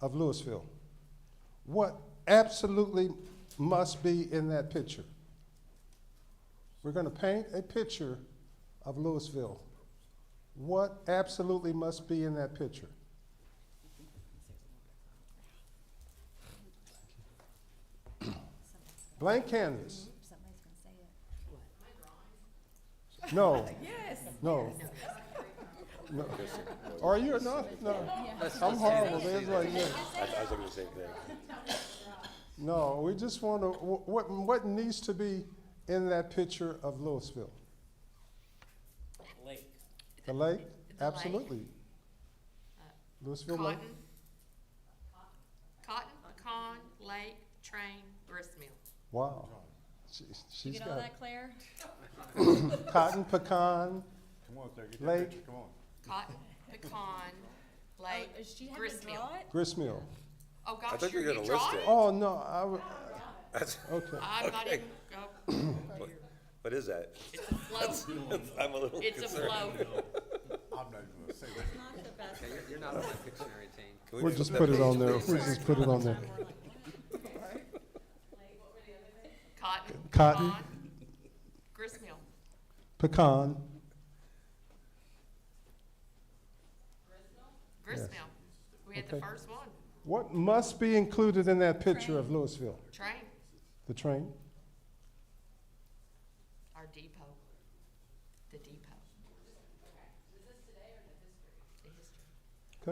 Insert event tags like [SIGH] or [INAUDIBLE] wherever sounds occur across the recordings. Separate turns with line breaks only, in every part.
of Louisville. What absolutely must be in that picture? We're going to paint a picture of Louisville. What absolutely must be in that picture? Blank canvas.
Somebody's gonna say it.
No,
Yes.
no. No. Are you or not? No. I'm horrible. There's like, yeah.
I, I was looking at the same thing.
No, we just want to, what, what needs to be in that picture of Louisville?
Lake.
The lake?
The lake.
Absolutely. Louisville Lake?
Cotton. Cotton, pecan, lake, train, grist mill.
Wow. She- She's
Get all
got
that, Claire?
cotton, pecan,
Come on, sir, get
Lake.
that picture, come on.
Cotton, pecan, lake,
Oh, Does she have to
grist mill.
draw it?
gristmill.
Oh, gosh,
thought you
you're
were gonna
you draw
list
it?
it.
Oh, no, I, w-
[LAUGHS] That's,
okay.
I'm not
Okay.
even, oh,
what is that? [LAUGHS]
it's a float,
I'm a little
it's a
concerned.
float.
I'm not even gonna say that.
Not the best.
Yeah, You're, you're not on my Pictionary team.
Can we
We'll
make
just
that
put it
page
on there.
please?
We'll just put it on there.
Cotton.
Cotton.
pecan, Grist mill.
Pecan,
Grist
Yes.
mill. We had the
Okay.
first one.
what must be included in that picture of Louisville?
Train,
The train?
our depot, the depot. The history.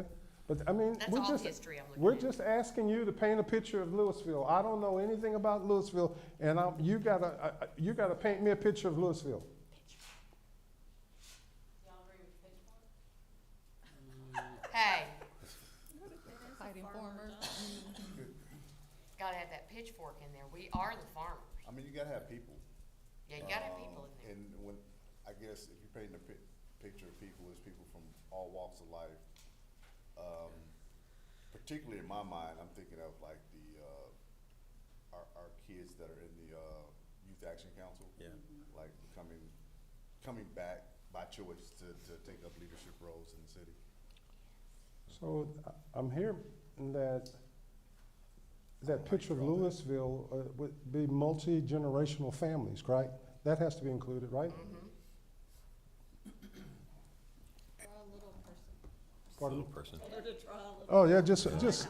Okay, but I mean,
That's
we're
all the
just,
history I'm looking
we're
at.
just asking you to paint a picture of Louisville. I don't know anything about Louisville, and I'm, you gotta, uh, uh, you gotta paint me a picture of Louisville.
Hey,
Fighting farmers.
gotta have that pitchfork in there. We are the farmers.
I mean, you gotta have people.
Yeah, you gotta have
um,
people in there.
And when, I guess if you're painting a pic- picture of people, it's people from all walks of life. Um, particularly in my mind, I'm thinking of like the, uh, our, our kids that are in the, uh, Youth Action Council.
Yeah.
Like coming, coming back by choice to, to take up leadership roles in the city.
So I- I'm hearing that, that picture of
draw that.
Louisville uh, would be multi-generational families, right? That has to be included, right?
Mm-hmm.
Pardon?
person.
Oh, yeah, just, just,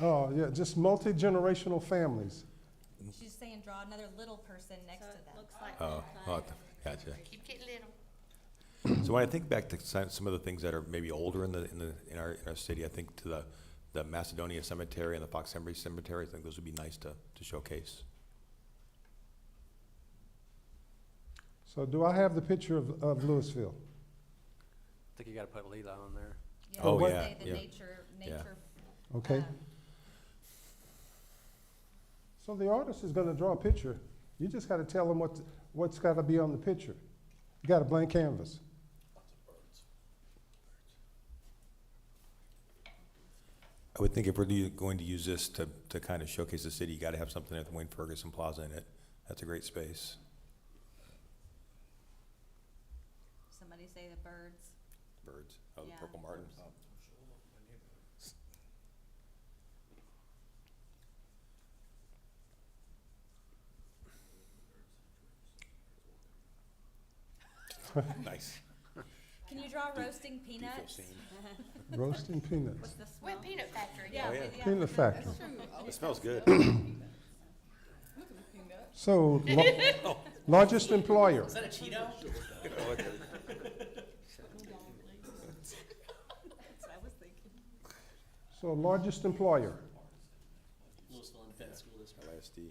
oh, yeah, just multi-generational families.
She's saying draw another little person next to them.
Oh, oh, gotcha.
Keep getting little.
So when I think back to some, some of the things that are maybe older in the, in the, in our, in our city, I think to the, the Macedonia Cemetery and the Fox Henry Cemetery, I think those would be nice to, to showcase.
So do I have the picture of, of Louisville?
I think you gotta put Leela on there.
Yeah,
Oh,
they
yeah,
say The
yeah.
nature, nature.
Okay.
um,
So the artist is going to draw a picture. You just got to tell them what, what's got to be on the picture. You got a blank canvas.
I would think if we're do- going to use this to, to kind of showcase the city, you gotta have something at the Wayne Ferguson Plaza in it. That's a great space.
Somebody say the birds.
Birds, oh, the
Yeah.
Purple Martins. [LAUGHS] Nice.
Can you draw roasting peanuts?
Roasting peanuts.
The smell.
Wet peanut factory.
Yeah,
Oh,
yeah.
yeah.
Peanut factory.
It smells good.
So
[LAUGHS] Oh.
la- largest employer.
that a Cheeto?
That's what I was thinking.
So largest employer.
Louisville Independent School District.
LSD.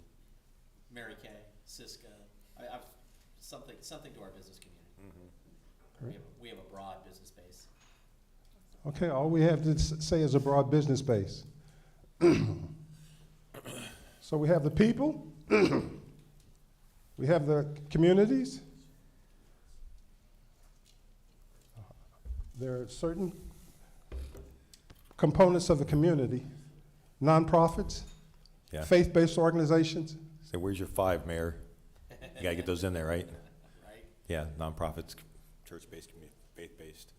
Mary Kay, Cisco. I, I've, something, something to our business community. We have, we have a broad business base.
Okay, all we have to s- say is a broad business base. [CLEARS THROAT] So we have the people, [CLEARS THROAT] we have the communities. There are certain components of the community, nonprofits,
Yeah.
faith-based organizations.
So where's your five, Mayor? You gotta get those in there, [LAUGHS] right?
Right?
Yeah, nonprofits, c- church-based, commu- faith-based.